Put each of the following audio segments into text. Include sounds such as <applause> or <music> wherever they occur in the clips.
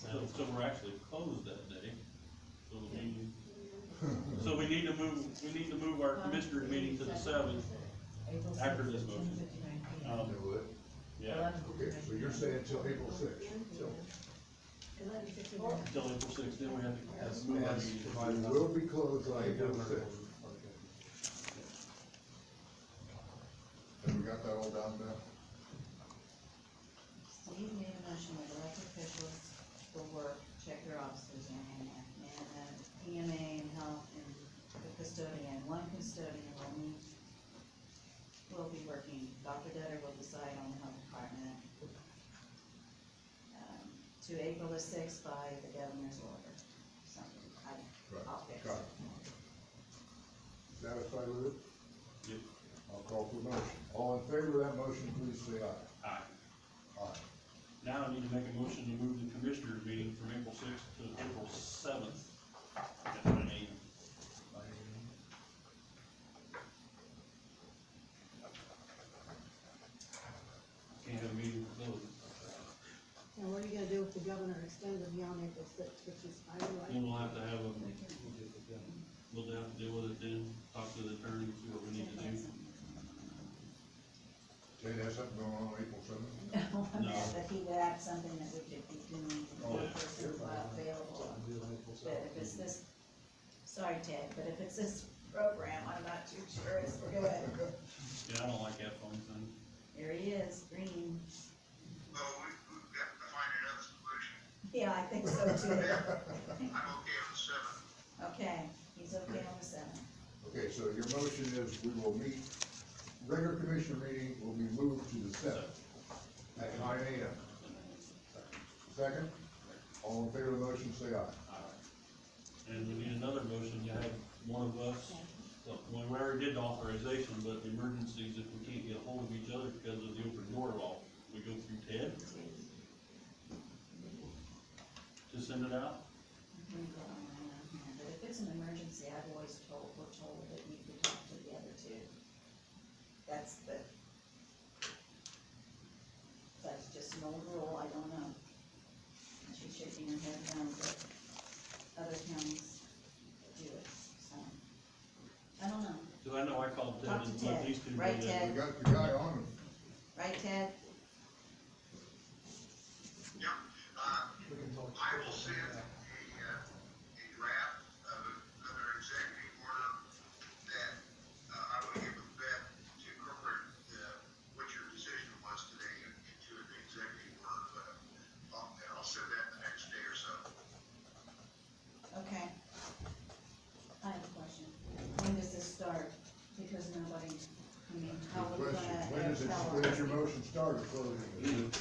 so we're actually closed that day. So we, so we need to move, we need to move our commissioners meeting to the seventh. After this motion. Um, They would. yeah, Okay, so you're saying till April sixth? until April sixth, then we have to- have to move our meeting. It will be closed on April sixth. Have we got that all down now? Steve made a motion that elected officials will work, check their offices and, and EMA E and health and the custodian, one custodian will meet. Will be working, Dr. Dutter will decide on the health department. um, To April the sixth by the governor's order, something, I, I'll fix Got it. it. Satisfied with it? Yep. I'll call for the motion. All in favor of that motion, please say aye. All right. Aye. Now I need to make a motion to move the commissioners meeting from April sixth to April seventh at nine AM. Can't have a meeting closed. And what are you gonna do if the governor extends it beyond April sixth, which is, I don't like, Then we'll have to have a, we'll have to deal with it then, talk to the attorney, see what we need to do. <laughs> Jay, has something going on April seventh? But he would add something that we could be doing, Oh, the person while available. But if it's this, sorry Ted, but if it's this program, I'm not too sure it's good. Yeah, I don't like that phone thing. There he is, green. Well, we, we've got to find another solution. Yeah, I think so too. I'm okay with seven. Okay, he's okay on the seventh. Okay, so your motion is we will meet, regular commission meeting will be moved to the seventh at nine AM. Second, all in favor of the motion, say aye. And we need another motion to have one of us, well, we already did the authorization, but the emergencies, if we can't get a hold of each other because of the open door law, we go through Ted to send it out? We go on and on and on. But if it's an emergency, I've always told, we're told that we could talk to the other two. That's the, that's just an old rule, I don't know. And She's shaking her head down, but other counties do it, so. I don't know, Cause I know I called Ted Talk to and let Ted. these two do Right, that. Ted? We got the guy on, right Ted? Yep. Uh, I will send a, uh, a draft of another executive order that, uh, I will give a bet to incorporate, uh, what your decision was today into an executive order, but I'll, and I'll send that the next day or so. Okay. I have a question. When does this start? Because nobody, I mean, how the we gonna question, when is it, tell when is your her? motion started, closing? Mm. it?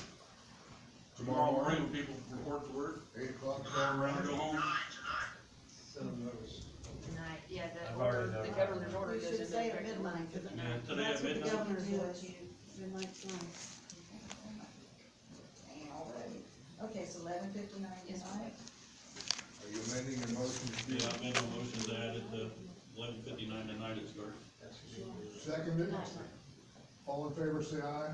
Tomorrow morning, when people report to work, Eight o'clock? turn around and go home. Nine tonight. Tonight, yeah, I've the already order, done the it. governor's order We goes should into say at effect tomorrow. midnight, 'cause Yeah, today at that's what the midnight. governor Governor, do did, what you midnight's nice. Dang, already. Okay, so eleven fifty-nine is right. Are you amending your motion? Yeah, I made a motion to add it to eleven fifty-nine tonight it starts. Seconded, all in favor, say aye.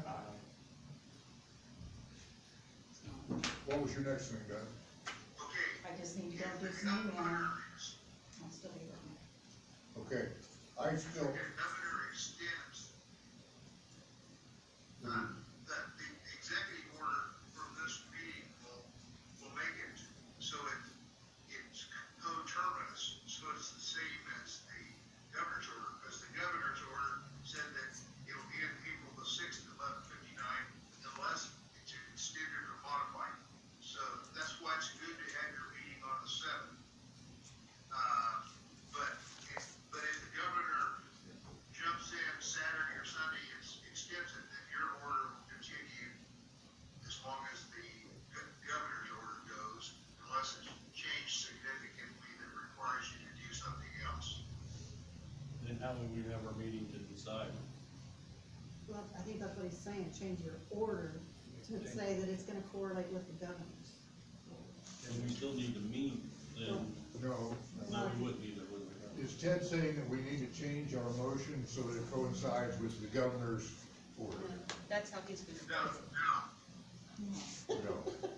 What was your next thing, Doug? Okay. I just need to go do If some the email. governor is- I'll still be working. Okay, I still, If the governor extends mm, that the executive order from this meeting will, will make it so it, it's coterminous, so it's the same as the governor's order, because the governor's order said that it'll be in April the sixth, eleven fifty-nine, unless it's extended or modified. So that's why it's good to have your meeting on the seventh. Uh, but, if- but if the governor jumps in Saturday or Sunday, it's, extends it, then your order will continue as long as the go- governor's order goes, unless it's changed significantly that requires you to do something else. Then how would we have our meeting to decide? Well, I think that's what he's saying, change your order to say that it's gonna correlate with the governor's. And we still need to meet, then, no, no. no, we wouldn't either, would we? Is Ted saying that we need to change our motion so that it coincides with the governor's order? That's how he's gonna. No, no, No.